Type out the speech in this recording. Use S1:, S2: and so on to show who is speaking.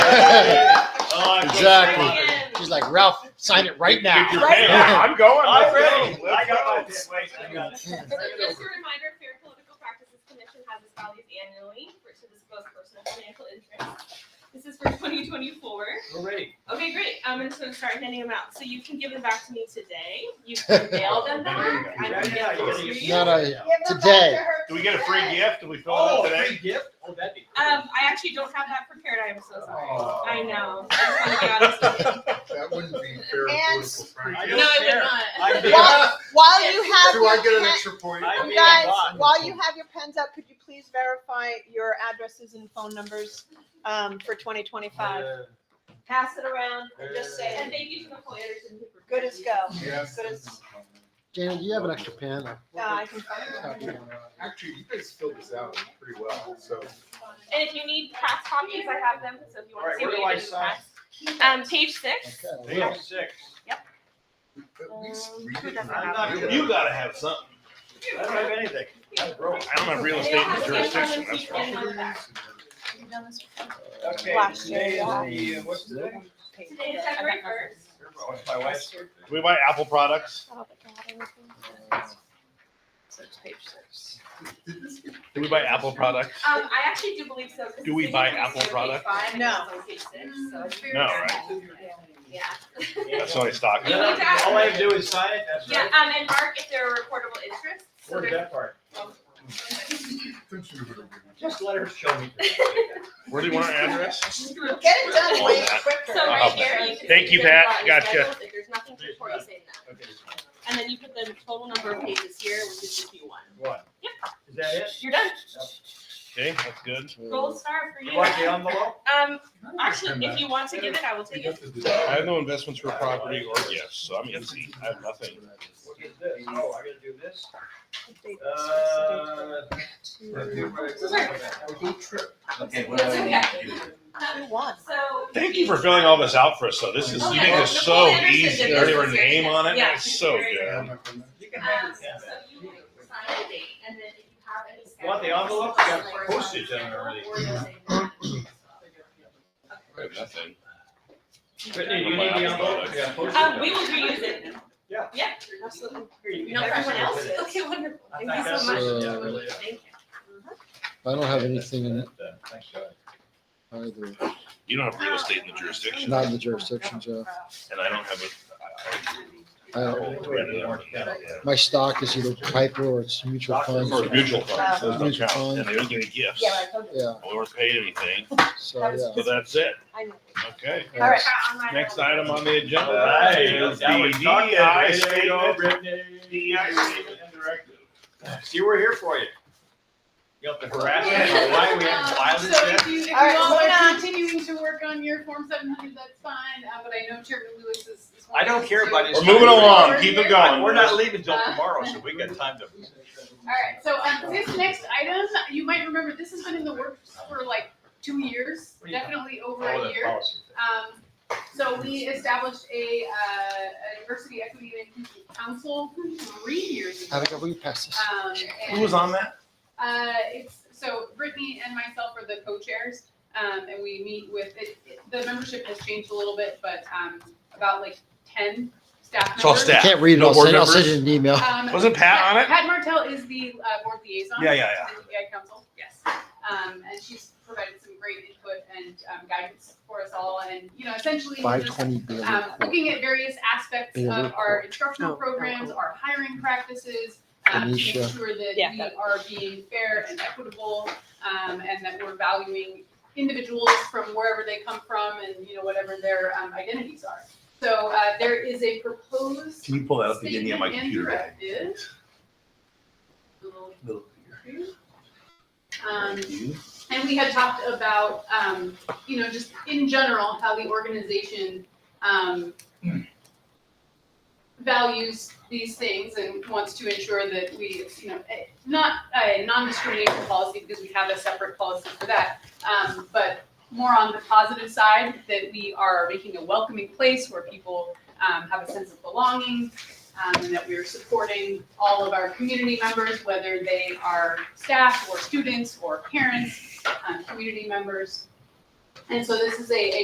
S1: Exactly.
S2: Again.
S1: She's like, Ralph, sign it right now.
S3: Get your
S4: Right
S3: pen.
S1: now.
S3: I'm going. Let's
S5: I'm ready.
S3: go.
S5: I
S3: Let's
S5: got my
S3: go.
S5: pen. Wait, I got it.
S2: So just a reminder, Fair Political Practices Commission has its values annually for to disclose personal financial interests. This is for twenty twenty-four.
S5: We're ready.
S2: Okay, great. I'm just gonna start handing them out. So you can give them back to me today. You can mail them back. I can
S5: Yeah,
S2: get
S5: you
S2: them
S5: gotta
S2: to
S5: get-
S2: you.
S1: Not
S2: Um,
S1: a, today.
S3: Do we get a free gift? Do we fill it
S5: Oh,
S3: out
S5: a
S3: today?
S5: free gift? Oh, that'd be. cool.
S2: Um, I actually don't have that prepared. I am so sorry.
S5: Oh.
S2: I know. I just wanna be honest with
S6: That wouldn't be fair
S4: And-
S6: political practice.
S5: I
S2: you.
S5: don't
S2: No, I
S5: care.
S2: would
S5: I'd
S2: not.
S5: be-
S4: While, while you have
S6: Do I
S4: your
S6: get an
S4: pen-
S6: extra point?
S5: I
S4: you
S5: mean,
S4: guys,
S5: why?
S4: while you have your pens up, could you please verify your addresses and phone numbers um, for 2025?
S5: Uh,
S4: Pass it around and just say
S2: And
S4: it.
S2: thank you to Nicole Anderson who prepared
S4: Good as
S2: these.
S4: go. Uh,
S6: Yes.
S4: Good as-
S1: Janet, do you have an extra pen?
S4: Uh, I can find it.
S6: Actually, you guys filled this out pretty well, so.
S2: And if you need press copies, I have them. So if you
S5: All
S2: want to see
S5: right, where
S2: what
S5: do
S2: you
S5: I
S2: did in
S5: sign?
S2: press. Um, page six.
S1: Okay.
S5: Page six.
S6: At least
S2: Um,
S6: read it.
S2: I'm
S5: not gonna-
S3: You gotta have something.
S5: I
S2: Um,
S5: don't have anything. I'm broke.
S3: I don't have real estate in jurisdiction, that's for sure.
S5: Okay,
S4: Last year,
S5: today is
S4: yeah.
S5: the, uh, what's today?
S2: Today is February first.
S5: Oh, it's my wife's birthday.
S3: Do we buy Apple products?
S6: Did this get-
S3: Do we buy Apple products?
S2: Um, I actually do believe so. 'cause
S3: Do we
S2: it's
S3: buy
S2: in page
S3: Apple
S2: four, page
S3: products?
S2: five, and
S4: No.
S2: it's on page six, so it's-
S3: No, right?
S2: Yeah.
S3: That's only stock.
S2: You need to ask-
S5: All I have to do is sign it, that's
S2: Yeah,
S5: right.
S2: um, and mark if there are reportable interests. So
S5: Where's
S2: there's-
S5: that part?
S6: Don't you know what I'm doing?
S5: Just let her show me.
S3: Where do you want our address?
S4: Get it done way
S2: So
S4: quicker.
S2: right here, you can.
S3: Uh-huh. Thank
S2: see
S3: you,
S2: the
S3: Pat.
S2: button
S3: Gotcha.
S2: schedule, If there's nothing to report, you say that.
S5: Okay,
S2: And then you put the total number of pages here, which is if you want.
S5: One.
S2: Yep.
S5: Is that it?
S2: You're done.
S3: Okay, that's good.
S2: Gold star for
S5: You
S2: you.
S5: want the envelope?
S2: Um, actually, if you want to give it, I will take it.
S3: I have no investments for property or gifts, so I'm easy. I have nothing.
S5: What is this? Oh, I gotta do this? Uh,
S6: Okay,
S2: what do I need
S4: You won.
S2: So.
S3: Thank you for filling all this out for us, though. This is, you make this so easy. You already have a name on it. That's so good.
S5: you can
S2: Um,
S5: have
S2: so
S5: it.
S2: you would sign the date, and then if you have any. schedule-
S5: Want the envelope? You got postage on it already.
S3: I have nothing.
S5: Brittany, you need the envelope? Yeah, post it
S2: Um,
S5: down.
S2: we will reuse it.
S5: Yeah.
S2: Yeah, absolutely.
S5: Here, you
S2: You
S5: can
S2: know,
S5: have
S2: everyone
S5: some
S2: else,
S5: today.
S2: okay, wonderful,
S5: I
S2: thank
S5: think
S2: you
S5: that's-
S2: so much.
S5: yeah, really.
S2: Thank you.
S1: I don't have anything in it
S5: Uh, Thanks, guys.
S1: either.
S3: You don't have real estate in the jurisdiction,
S1: Not in the jurisdiction, Jeff.
S3: and I don't have a.
S1: I-
S5: Yeah.
S1: My stock is either Piper or it's mutual funds.
S3: Or mutual funds, those don't
S1: Mutual
S3: count, and
S1: funds.
S3: they don't give me gifts.
S4: Yeah, I told you.
S1: Yeah,
S3: We weren't paid anything,
S1: so,
S3: so that's it.
S4: I know.
S3: Okay.
S4: All right.
S3: Next item on the
S5: All
S3: agenda
S5: right.
S3: is the
S5: That was done.
S3: DEI
S5: There you go,
S3: statement.
S5: Brittany.
S3: DEI statement and directive.
S5: See, we're here for you. You have to harass us, why we have violence
S7: So if
S5: yet?
S7: you, if you
S4: All right,
S7: all
S4: moving on.
S7: are continuing to work on your Form seven hundred, that's fine, uh, but I know Chairman Lewis is. is
S5: I don't care about
S7: wanting
S5: his-
S7: to-
S3: We're moving along, keep it going.
S5: We're not leaving till tomorrow, so we got time to.
S7: All right, so um, this next item, you might remember, this has been in the works for like two years, definitely over
S5: Oh,
S7: a
S5: that
S7: year.
S5: policy thing.
S7: Um, so we established a, uh, a diversity, equity, and inclusion council three years ago.
S1: I think we pass this.
S7: Um, and-
S3: Who was on that?
S7: Uh, it's, so Brittany and myself are the co-chairs, um, and we meet with, it, it- the membership has changed a little bit, but, um, about like ten staff members.
S3: It's all staff.
S1: Can't read it
S3: No
S1: all,
S3: board
S1: send- I'll send
S3: members?
S1: you an email.
S7: Um,
S3: Wasn't Pat on it?
S7: Pat Martell is the, uh, board liaison.
S3: Yeah, yeah,
S7: to the AI council, yes. Um, and she's provided some great input and, um, guidance for us all, and, you know, essentially.
S1: Five
S7: just,
S1: twenty Bailey
S7: um,
S1: Court.
S7: looking at various aspects
S1: Be a
S7: of
S1: little
S7: our
S1: court.
S7: instructional
S4: No, no,
S7: programs,
S4: no.
S7: our hiring practices, um, to make
S1: Anisha.
S7: sure that
S4: Yeah,
S7: we
S4: got
S7: are being fair and equitable, um, and that we're valuing individuals from wherever they come from and, you know, whatever their, um, identities are. So, uh, there is a proposed
S3: Can you pull that up again? Yeah,
S7: statement
S3: my
S7: and
S3: computer. died.
S7: directive. Little
S3: Little
S7: computer. Um, and we had talked about, um, you know, just in general, how the organization, um, values these things and wants to ensure that we, you know, eh, not a non-discrimination policy, because we have a separate policy for that. Um, but more on the positive side, that we are making a welcoming place where people, um, have a sense of belonging, um, and that we're supporting all of our community members, whether they are staff or students or parents, um, community members. uh, And so this is a, a